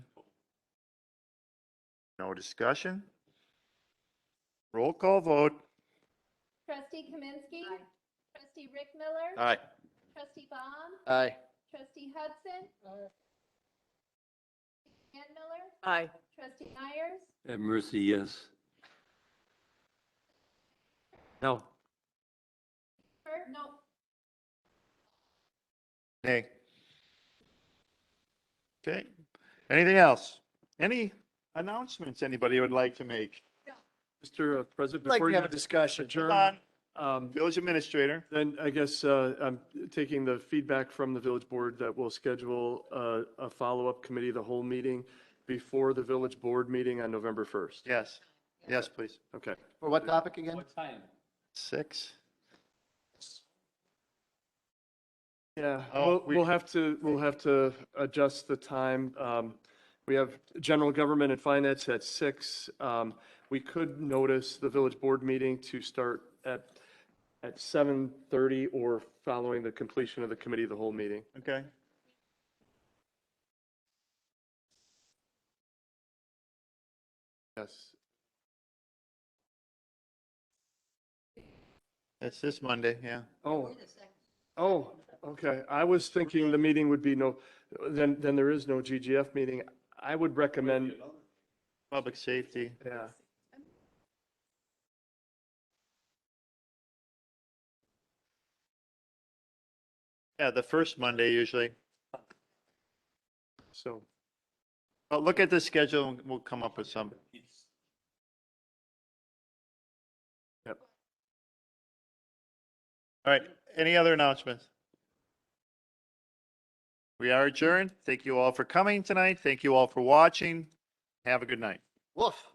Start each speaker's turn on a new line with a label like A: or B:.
A: No discussion? Roll call vote.
B: Trustee Kaminsky. Trustee Rick Miller.
A: Aye.
B: Trustee Baum.
C: Aye.
B: Trustee Hudson. Ann Miller.
D: Aye.
B: Trustee Myers.
E: Have mercy, yes. No.
B: Or, no,
A: Nay. Okay. Anything else? Any announcements anybody would like to make?
F: Mr. uh, President,
C: Like
F: before
C: to
F: you
C: have a discussion.
A: Hold
F: adjourn,
A: on,
F: um,
A: Village Administrator.
F: then I guess uh, I'm taking the feedback from the village board that we'll schedule uh, a follow-up committee, of the whole meeting before the village board meeting on November 1st.
A: Yes. Yes, please.
F: Okay.
C: For what topic again?
E: time?
A: Six.
F: Yeah,
A: Oh,
F: we'll,
A: we-
F: we'll have to, we'll have to adjust the time. Um, we have general government and finance at six. Um, we could notice the village board meeting to start at, at seven thirty or following the completion of the committee, of the whole meeting.
A: Okay.
F: Yes.
A: That's this Monday, yeah.
F: Oh, oh, okay. I was thinking the meeting would be no, then, then there is no GGF meeting. I would recommend,
A: Public Safety.
F: yeah.
A: Yeah, the first Monday usually.
F: So,
A: But look at the schedule and we'll come up with some.
F: Yep.
A: All right, any other announcements? We are adjourned. Thank you all for coming tonight. Thank you all for watching. Have a good night.
C: Woof.